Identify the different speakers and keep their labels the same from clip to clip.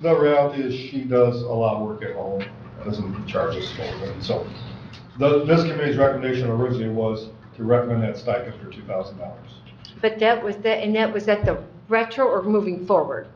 Speaker 1: the reality is she does a lot of work at home, doesn't charge us for it, so. The, this committee's recommendation originally was to recommend that stipend for two thousand dollars.
Speaker 2: But that was, that, and that was at the retro or moving forward?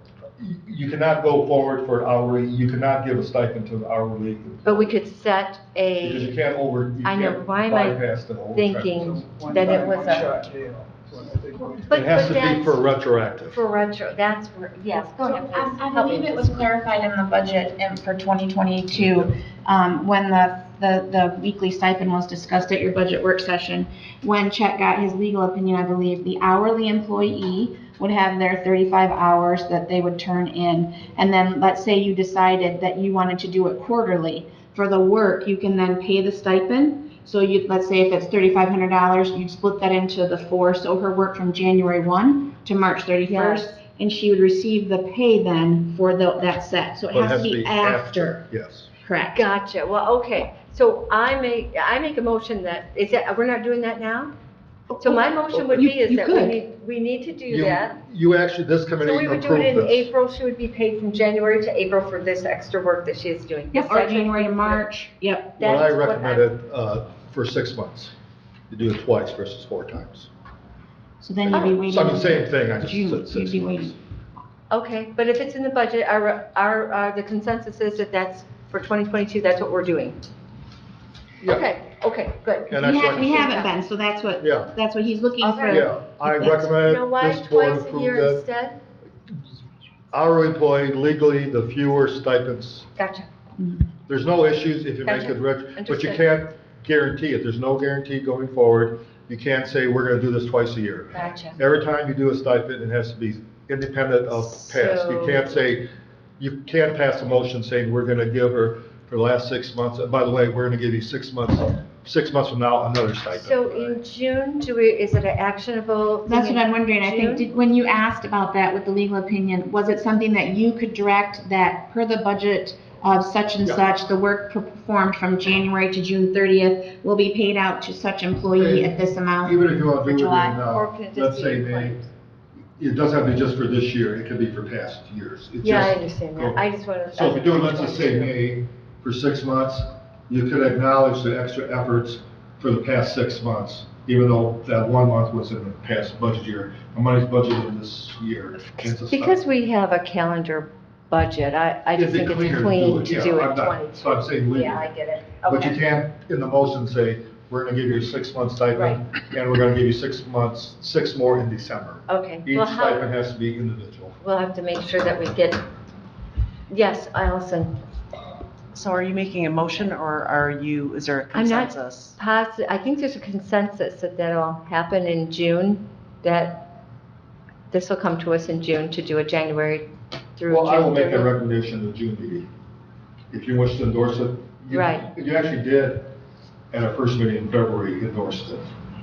Speaker 1: You cannot go forward for hourly, you cannot give a stipend to an hourly,
Speaker 2: But we could set
Speaker 1: because you
Speaker 2: a,
Speaker 1: can't over, you
Speaker 2: I know,
Speaker 1: can't
Speaker 2: why am I
Speaker 1: bypass the whole.
Speaker 2: thinking
Speaker 3: One
Speaker 2: that it
Speaker 3: time,
Speaker 2: was
Speaker 3: one
Speaker 2: a,
Speaker 3: shot deal. So I think we-
Speaker 2: but,
Speaker 1: It has
Speaker 2: but
Speaker 1: to be for
Speaker 2: that's,
Speaker 1: retroactive.
Speaker 2: for retro, that's where, yes, go
Speaker 4: So
Speaker 2: ahead,
Speaker 4: I
Speaker 2: please.
Speaker 4: I
Speaker 2: Help me.
Speaker 4: believe it was clarified in the budget and for 2022, um, when the, the, the weekly stipend was discussed at your budget work session. When Chet got his legal opinion, I believe, the hourly employee would have their 35 hours that they would turn in. And then, let's say you decided that you wanted to do it quarterly. For the work, you can then pay the stipend. So you, let's say if it's $3,500, you'd split that into the four, so her work from January 1 to March 31st
Speaker 2: Yes.
Speaker 4: and she would receive the pay then for tho- that set. So it has to be after,
Speaker 1: Yes.
Speaker 4: correct?
Speaker 2: Gotcha, well, okay, so I make, I make a motion that, is that, we're not doing that now? So my motion would
Speaker 4: You-
Speaker 2: be is
Speaker 4: you
Speaker 2: that we
Speaker 4: could.
Speaker 2: need, we need to do
Speaker 1: You-
Speaker 2: that.
Speaker 1: You actually, this
Speaker 2: So
Speaker 1: committee
Speaker 2: we would do it
Speaker 1: approved
Speaker 2: in
Speaker 1: this.
Speaker 2: April, she would be paid from January to April for this extra work that she is doing.
Speaker 4: Yep, or January to March, yep.
Speaker 1: What I
Speaker 2: That's what I-
Speaker 1: recommended, uh, for six months, you do it twice versus four times.
Speaker 4: So then
Speaker 2: Oh.
Speaker 4: you'd be waiting.
Speaker 1: So I mean, same thing, I
Speaker 4: June,
Speaker 1: just said
Speaker 4: you'd
Speaker 1: six
Speaker 4: be
Speaker 1: months.
Speaker 4: waiting.
Speaker 2: Okay, but if it's in the budget, our, our, uh, the consensus is that that's, for 2022, that's what we're doing.
Speaker 1: Yeah.
Speaker 2: Okay, okay, good.
Speaker 1: And
Speaker 4: We
Speaker 1: that's
Speaker 4: have,
Speaker 1: what-
Speaker 4: we haven't been, so that's what,
Speaker 1: Yeah,
Speaker 4: that's what he's looking
Speaker 2: Okay.
Speaker 4: for.
Speaker 1: yeah, I
Speaker 4: That's-
Speaker 1: recommend
Speaker 2: Now, why
Speaker 1: this Uh, board
Speaker 2: twice a
Speaker 1: approve
Speaker 2: year
Speaker 1: that.
Speaker 2: instead?
Speaker 1: Our employee legally, the fewer stipends.
Speaker 2: Gotcha,
Speaker 1: There's no issues if you make
Speaker 2: Gotcha.
Speaker 1: it rich, but you
Speaker 2: Understood.
Speaker 1: can't guarantee it. There's no guarantee going forward. You can't say, we're gonna do this twice a year.
Speaker 2: gotcha.
Speaker 1: Every time you do a stipend, it has to be independent of past. You
Speaker 2: So-
Speaker 1: can't say, you can't pass a motion saying, we're gonna give her for the last six months, and by the way, we're gonna give you six months, six months from now, another stipend.
Speaker 2: So in June, do we, is it an actionable? thing
Speaker 4: That's what
Speaker 2: in
Speaker 4: I'm wondering. I
Speaker 2: June?
Speaker 4: think, did- when you asked about that with the legal opinion, was it something that you could direct that per the budget of such and
Speaker 1: Yeah.
Speaker 4: such, the work performed from January to June 30th will be paid out to such employee at this amount?
Speaker 1: Even if you want to do it in,
Speaker 4: July,
Speaker 2: or
Speaker 1: uh,
Speaker 2: can it just
Speaker 1: let's
Speaker 2: be
Speaker 1: say
Speaker 2: in
Speaker 1: May,
Speaker 2: claims?
Speaker 1: it doesn't have to be just for this year, it could be for past years. It
Speaker 2: Yeah, I
Speaker 1: just-
Speaker 2: understand that. I just wanted.
Speaker 1: So if you do it, let's just say May, for six months, you could acknowledge the extra efforts for the past six months, even though that one month was in the past budget year, the money's budgeted in this year. It's a stop.
Speaker 2: Because we have a calendar budget, I, I just
Speaker 1: It'd be
Speaker 2: think
Speaker 1: cleaner
Speaker 2: it's clean to
Speaker 1: yeah,
Speaker 2: do
Speaker 1: I'm
Speaker 2: it
Speaker 1: not- So I'm
Speaker 2: 22.
Speaker 1: saying leave
Speaker 2: Yeah, I
Speaker 1: it,
Speaker 2: get it.
Speaker 1: but you
Speaker 2: Okay.
Speaker 1: can't, in the motion, say, we're gonna give you a six-month stipend, and we're gonna give you six months, six more in December.
Speaker 2: Okay.
Speaker 1: Each
Speaker 2: Well, how-
Speaker 1: stipend has to be individual.
Speaker 2: We'll have to make sure that we get, yes, Allison,
Speaker 5: So are you making a motion or are you, is there a
Speaker 2: I'm not-
Speaker 5: consensus?
Speaker 2: possi I think there's a consensus that that'll happen in June, that this will come to us in June to do a January through June.
Speaker 1: Well, I will make that
Speaker 2: 30th.
Speaker 1: recommendation in the June meeting. If you wish to endorse it. you-
Speaker 2: Right.
Speaker 1: You actually did, at our first meeting in February, you endorsed it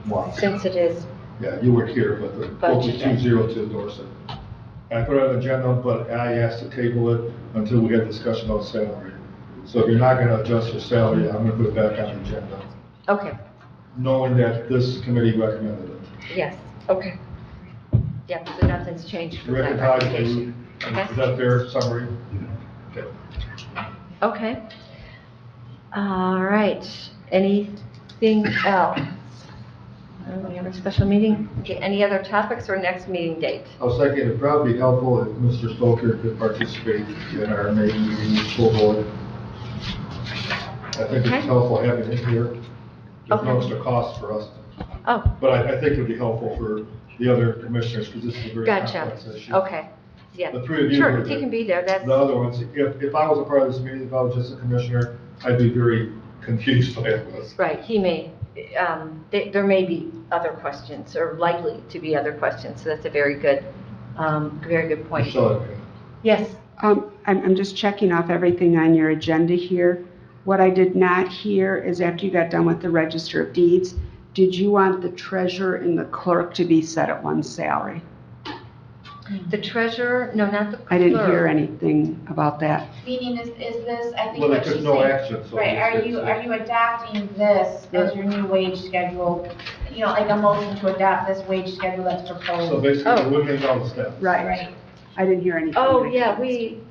Speaker 1: once.
Speaker 2: Since it is,
Speaker 1: Yeah, you weren't here, but the vote was
Speaker 2: Budget, yeah.
Speaker 1: two zero to endorse it. I put it on the agenda, but I asked to table it until we had discussion on salary. So if you're not gonna adjust your salary, I'm gonna put it back on the agenda,
Speaker 2: okay,
Speaker 1: knowing that this committee recommended it.
Speaker 2: yes, okay. Yeah, so nothing's changed from that
Speaker 1: Rick and Todd,
Speaker 2: recommendation.
Speaker 1: is that fair summary? Okay.
Speaker 2: Okay. All right, anything else? Uh, We have a special meeting, Okay, any other topics or next meeting date?
Speaker 1: I was thinking it'd probably be helpful if Mr. Stoker could participate in our May meeting with school board. I think
Speaker 2: Okay.
Speaker 1: it's helpful having him here. There's
Speaker 2: Okay.
Speaker 1: no extra cost for us,
Speaker 2: Oh,
Speaker 1: but I, I think it'd be helpful for the other commissioners, because this is a very
Speaker 2: gotcha,
Speaker 1: complex issue.
Speaker 2: okay, yeah.
Speaker 1: The three of you
Speaker 2: Sure,
Speaker 1: were
Speaker 2: if you
Speaker 1: the-
Speaker 2: can be there, that's,
Speaker 1: The other ones, if, if I was a part of this meeting, if I was just a commissioner, I'd be very confused by this.
Speaker 2: right, he may, um, th- there may be other questions, or likely to be other questions, so that's a very good, um, very good point.
Speaker 1: So,
Speaker 2: Yes,
Speaker 6: Um, I'm, I'm just checking off everything on your agenda here. What I did not hear is after you got done with the register of deeds, did you want the treasurer and the clerk to be set at one salary?
Speaker 2: the treasurer, no, not the clerk.
Speaker 6: I didn't hear anything about that.
Speaker 4: Meaning is, is this, I
Speaker 1: well, they took no action, so.
Speaker 4: Right,
Speaker 1: it's-
Speaker 4: are you,
Speaker 1: it's-
Speaker 4: are you adopting this as your new wage schedule? You know, like a motion to adopt this wage schedule that's
Speaker 1: So
Speaker 4: proposed?
Speaker 1: basically,
Speaker 2: Oh.
Speaker 1: we're limiting all the staff.
Speaker 6: Right,
Speaker 4: Right.
Speaker 6: I didn't hear anything.
Speaker 2: Oh, yeah, we,